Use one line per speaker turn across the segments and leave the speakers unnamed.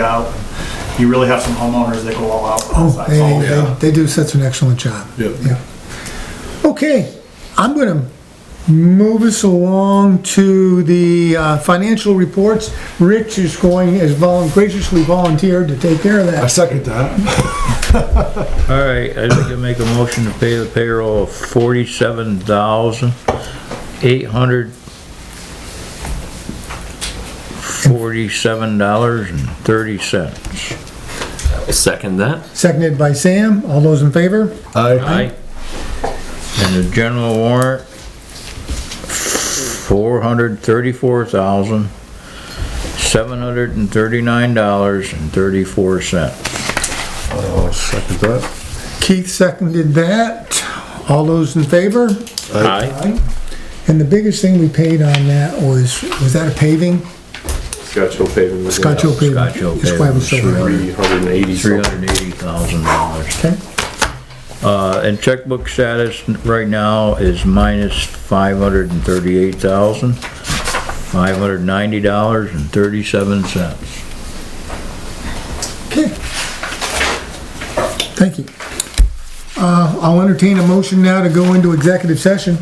out. You really have some homeowners that go all out.
Oh, they,
That's all.
they- they do such an excellent job.
Yep.
Yeah. Okay, I'm gonna move us along to the uh, financial reports. Rich is going, has volun- graciously volunteered to take care of
I
that.
second that.
All right, I'd like to make a motion to pay the payroll of forty-seven thousand, eight hundred forty-seven dollars and thirty cents.
Second that.
Seconded by Sam, all those in favor?
I,
Aye. And the general warrant, four hundred thirty-four thousand, seven hundred and thirty-nine dollars and thirty-four cents.
I'll Oh, second that.
Keith seconded that, all those in favor?
Aye.
And the biggest thing we paid on that was, was that a paving?
Scotch Hill paving. was
Scotch Hill paving.
Scotch Hill
That's why it was so
paving,
high.
Three hundred and eighty
Three
something.
hundred and eighty thousand dollars.
Okay,
Uh, and checkbook status right now is minus five hundred and thirty-eight thousand, five hundred ninety dollars and thirty-seven cents.
okay. Thank you. Uh, I'll entertain a motion now to go into executive session.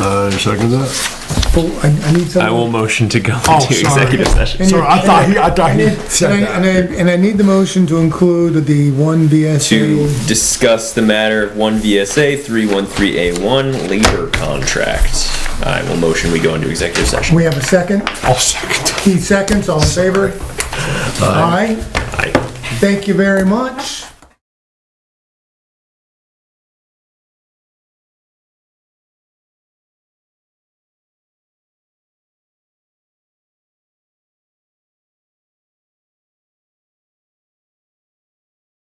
I second that.
Oh, I, I need
I will
someone.
motion to go
Oh,
into
sorry.
executive session.
And you-
Sorry, I thought he, I thought
And
he
I,
said
and
that.
I, and I need the motion to include the one
To
VSA.
discuss the matter of one VSA three one three A one labor contract. I will motion we go into executive session.
We have a second.
I'll second.
Keith seconds, all in favor? Aye.
Aye.
Thank you very much.